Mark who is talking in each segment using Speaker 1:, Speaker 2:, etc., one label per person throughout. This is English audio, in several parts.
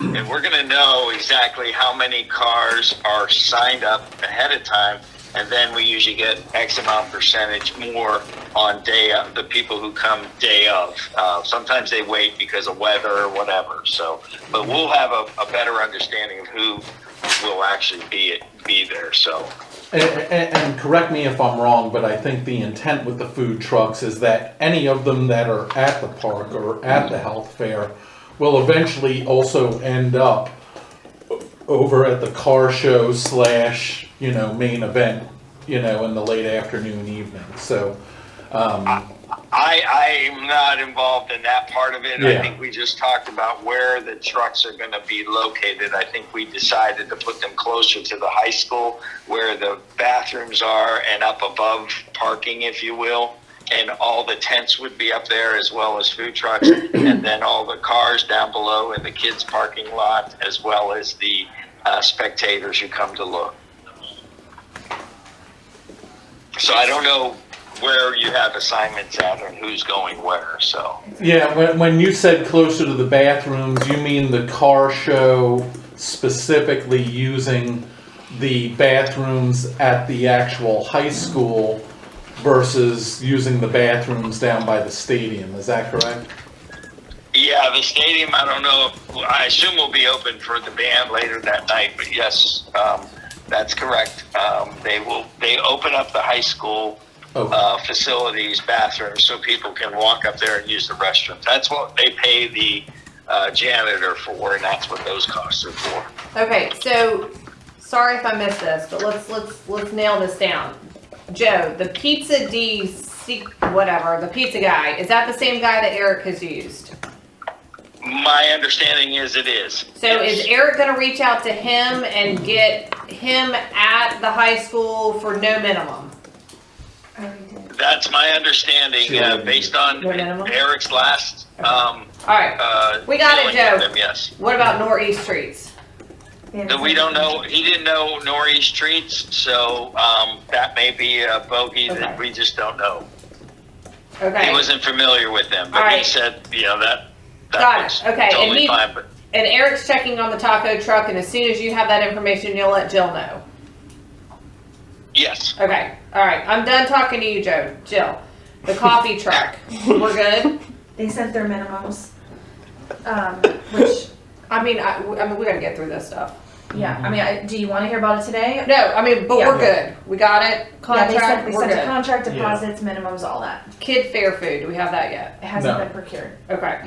Speaker 1: And we're going to know exactly how many cars are signed up ahead of time. And then we usually get X amount percentage more on day of the people who come day of. Uh, sometimes they wait because of weather or whatever. So, but we'll have a, a better understanding of who will actually be be there. So,
Speaker 2: And, and, and correct me if I'm wrong, but I think the intent with the food trucks is that any of them that are at the park or at the health fair will eventually also end up over at the car show slash, you know, main event, you know, in the late afternoon, evening. So,
Speaker 1: I, I am not involved in that part of it.
Speaker 2: Yeah.
Speaker 1: I think we just talked about where the trucks are going to be located. I think we decided to put them closer to the high school where the bathrooms are and up above parking, if you will. And all the tents would be up there as well as food trucks. and then all the cars down below in the kids' parking lot as well as the uh, spectators who come to look. So I don't know where you have assignments at and who's going where. So
Speaker 2: yeah, when, when you said closer to the bathrooms, you mean the car show specifically using the bathrooms at the actual high school versus using the bathrooms down by the stadium. Is that correct?
Speaker 1: yeah, the stadium. I don't know. If, I assume will be open for the band later that night. But yes, um, that's correct. Um, they will. They open up the high school.
Speaker 2: Okay.
Speaker 1: Uh, facilities, bathrooms, so people can walk up there and use the restroom. That's what they pay the uh, janitor for, and that's what those costs are for.
Speaker 3: Okay, so, sorry if I missed this, but let's, let's, let's nail this down. Joe, the pizza D, C- whatever, the pizza guy, is that the same guy that Eric has used?
Speaker 1: My understanding is it is.
Speaker 3: So is Eric gonna reach out to him and get him at the high school for no minimum?
Speaker 1: That's my understanding, uh, based on
Speaker 3: Your minimum?
Speaker 1: Eric's last, um,
Speaker 3: Alright,
Speaker 1: uh.
Speaker 3: We got it,
Speaker 1: dealing with
Speaker 3: Joe.
Speaker 1: them, Yes.
Speaker 3: what about northeast streets?
Speaker 1: That we don't know, he didn't know Nori's streets, so, um, that may be a bogey
Speaker 3: Okay.
Speaker 1: that we just don't know. He
Speaker 3: Okay,
Speaker 1: wasn't familiar with them,
Speaker 3: All
Speaker 1: but he
Speaker 3: right.
Speaker 1: said, you know, that,
Speaker 3: Got it.
Speaker 1: that was
Speaker 3: Okay, and
Speaker 1: totally
Speaker 3: he-
Speaker 1: fine, but,
Speaker 3: and Eric's checking on the taco truck, and as soon as you have that information, you'll let Jill know.
Speaker 1: yes.
Speaker 3: Okay, alright, I'm done talking to you, Joe. Jill, the coffee truck, we're good?
Speaker 4: They sent their minimums, um, which,
Speaker 3: I mean, I, I mean, we gotta get through this stuff.
Speaker 4: yeah, I mean, I, do you wanna hear about it today?
Speaker 3: No, I mean, but we're good. We got it.
Speaker 4: Yeah, they
Speaker 3: Contract,
Speaker 4: sent, they
Speaker 3: we're
Speaker 4: sent
Speaker 3: good.
Speaker 4: contract
Speaker 2: Yeah.
Speaker 4: deposits, minimums, all that.
Speaker 3: Kid fair food, do we have that yet?
Speaker 4: It hasn't
Speaker 2: No.
Speaker 4: been procured.
Speaker 3: Okay.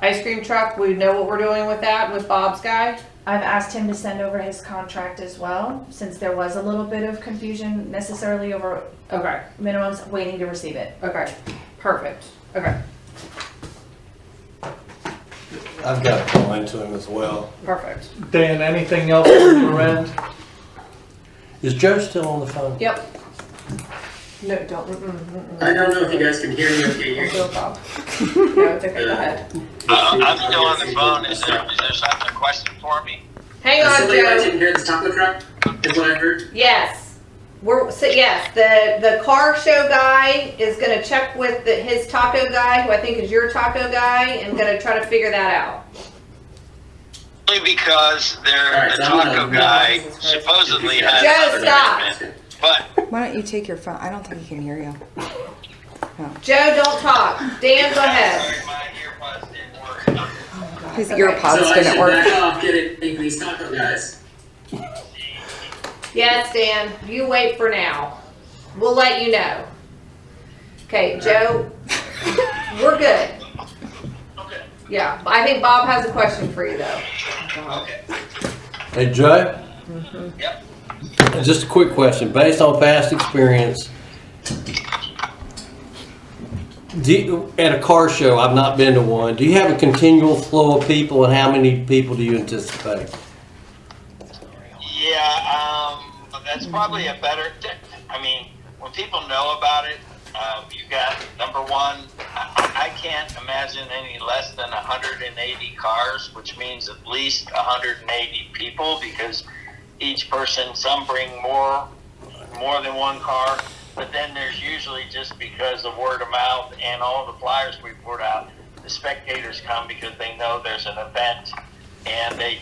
Speaker 3: Ice cream truck, we know what we're doing with that, with Bob's guy.
Speaker 4: I've asked him to send over his contract as well, since there was a little bit of confusion necessarily over
Speaker 3: Okay,
Speaker 4: minimums, waiting to receive it.
Speaker 3: okay, perfect. Okay,
Speaker 5: I've got a comment to him as well.
Speaker 3: perfect.
Speaker 2: Dan, anything else on your end?
Speaker 5: Is Joe still on the phone?
Speaker 3: Yep. No, don't, mm-mm, mm-mm.
Speaker 6: I don't know if you guys can hear me. Okay,
Speaker 3: Don't
Speaker 6: you-
Speaker 3: do it, Bob. No, it's okay, go ahead.
Speaker 1: Uh, I'm still on the phone. Is there, is there something, a question for me?
Speaker 3: Hang
Speaker 6: Uh,
Speaker 3: on,
Speaker 6: Somebody I
Speaker 3: Joe.
Speaker 6: didn't hear the top of the truck, is what I heard.
Speaker 3: Yes. We're, so yes, the, the car show guy is gonna check with the, his taco guy, who I think is your taco guy, and gonna try to figure that out.
Speaker 1: Only because they're,
Speaker 6: Alright,
Speaker 1: the
Speaker 6: so I'm gonna-
Speaker 1: taco guy supposedly has.
Speaker 3: Joe,
Speaker 1: other
Speaker 3: stop.
Speaker 1: commitment, But
Speaker 7: Why don't you take your phone? I don't think he can hear you.
Speaker 3: Joe, don't talk. Dan, go ahead.
Speaker 1: Sorry, my earbuds didn't work.
Speaker 7: His
Speaker 3: Okay.
Speaker 7: earpods
Speaker 6: So I
Speaker 7: didn't
Speaker 6: should
Speaker 7: work.
Speaker 6: back off, get it, make these taco guys.
Speaker 3: Yes, Dan, you wait for now. We'll let you know. Okay, Joe, we're good.
Speaker 1: Okay.
Speaker 3: Yeah, I think Bob has a question for you though.
Speaker 1: Okay.
Speaker 5: Hey, Joe?
Speaker 1: Yep.
Speaker 5: Just a quick question, based on past experience. Do, you- at a car show, I've not been to one, do you have a continual flow of people and how many people do you anticipate?
Speaker 1: Yeah, um, that's probably a better. I mean, when people know about it, um, you got number one. I, I can't imagine any less than 180 cars, which means at least 180 people because each person some bring more more than one car. But then there's usually just because of word of mouth and all the flyers we put out, the spectators come because they know there's an event and they